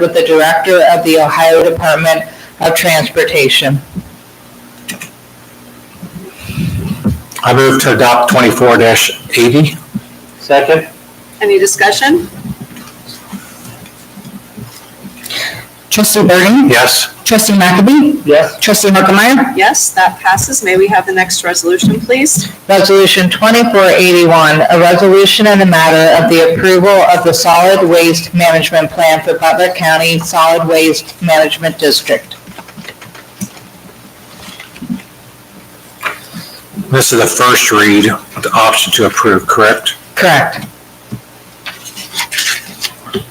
with the Director of the Ohio Department of Transportation. I move to adopt twenty-four eighty. Second? Any discussion? Trustee Burden? Yes. Trustee McAbey? Yes. Trustee Harkemaier? Yes, that passes. May we have the next resolution, please? Resolution 2481, a resolution in the matter of the approval of the solid waste management plan for Butler County Solid Waste Management District. This is the first read with the option to approve, correct? Correct.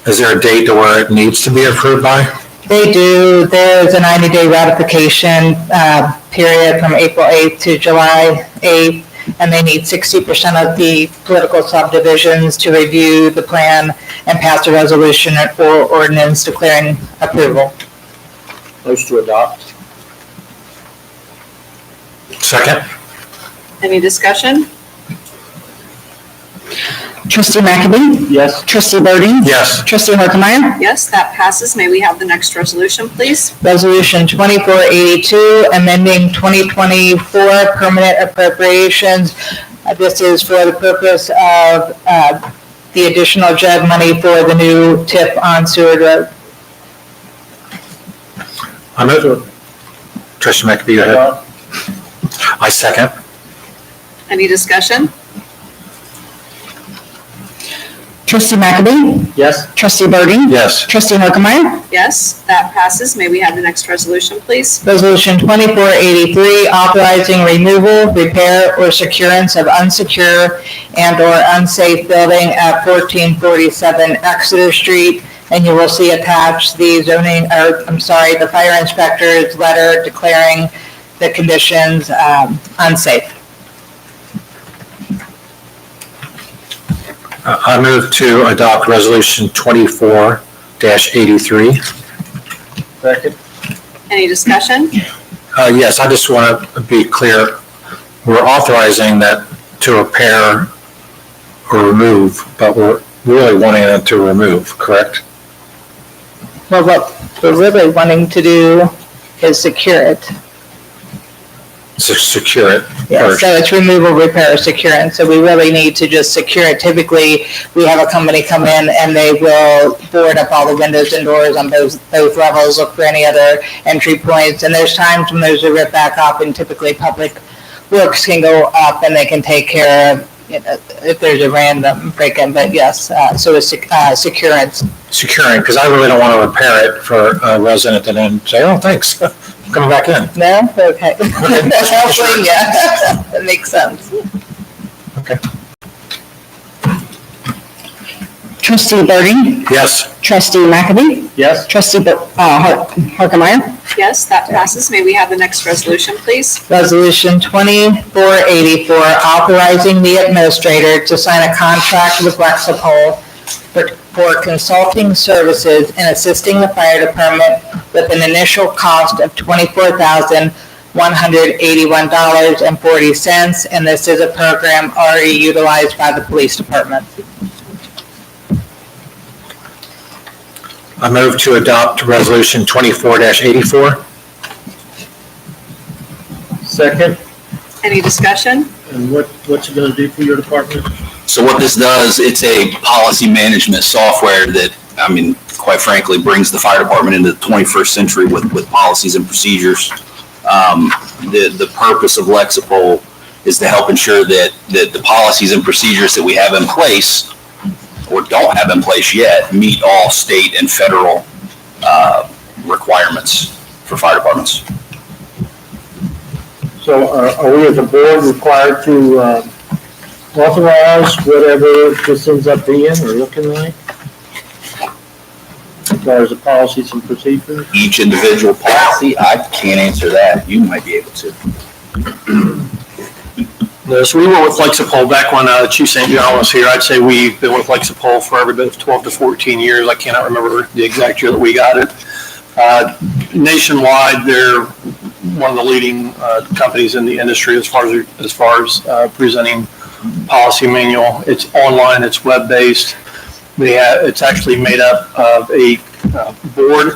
Is there a date to where it needs to be approved by? They do, there's a 90-day ratification uh, period from April 8th to July 8th, and they need 60% of the political subdivisions to review the plan and pass a resolution or ordinance declaring approval. Motion to adopt? Second? Any discussion? Trustee McAbey? Yes. Trustee Burden? Yes. Trustee Harkemaier? Yes, that passes. May we have the next resolution, please? Resolution 2482, amending 2024 permanent appropriations. Uh, This is for the purpose of uh, the additional JED money for the new tip on Seward Road. I move. Trustee McAfee, go ahead. Adopt? I second. Any discussion? Trustee McAbey? Yes. Trustee Burden? Yes. Trustee Harkemaier? Yes, that passes. May we have the next resolution, please? Resolution 2483, authorizing removal, repair, or securance of unsecure and/or unsafe building at 1447 Exeter Street. And you will see attached the zoning, or, I'm sorry, the fire inspector's letter declaring the conditions um, unsafe. Uh, I move to adopt resolution twenty-four eighty-three. Second? Any discussion? Uh, yes, I just want to be clear. We're authorizing that to repair or remove, but we're really wanting it to remove, correct? Well, what we're really wanting to do is secure it. To secure it. Yeah, first. so it's removal, repair, or securance, so we really need to just secure it. Typically, we have a company come in and they will board up all the windows and doors on both, both levels, look for any other entry points, and there's times when there's a rip back up, and typically public works can go up and they can take care of, you know, if there's a random break-in, but yes, uh, so it's, sec- uh, securance. securing, because I really don't want to repair it for a resident and then say, oh, thanks, coming back in. No? Okay. Hopefully, yeah, that makes sense. Trustee Burden? Yes, Trustee McAbey? Yes. Trustee Bur- uh, Har- Harkemaier? Yes, that passes. May we have the next resolution, please? Resolution 2484, authorizing the administrator to sign a contract with Lexipol for- for consulting services and assisting the fire department with an initial cost of $24,181.40, and this is a program already utilized by the police department. I move to adopt Resolution 24-84. Second? Any discussion? And what, what you gonna do for your department? So what this does, it's a policy management software that, I mean, quite frankly, brings the fire department into the 21st century with, with policies and procedures. Um, The, the purpose of Lexipol is to help ensure that, that the policies and procedures that we have in place or don't have in place yet meet all state and federal uh, requirements for fire departments. So are, are we as a board required to, um, authorize whatever this ends up being or looking like? As far as the policies and procedures? Each individual policy, I can't answer that. You might be able to. No, so we went with Lexipol back when uh, Chief St. John was here. I'd say we've been with Lexipol for every bit of 12 to 14 years. I cannot remember the exact year that we got it. Uh, Nationwide, they're one of the leading uh, companies in the industry as far as, as far as uh, presenting policy manual. It's online, it's web-based. They have, it's actually made up of a uh, board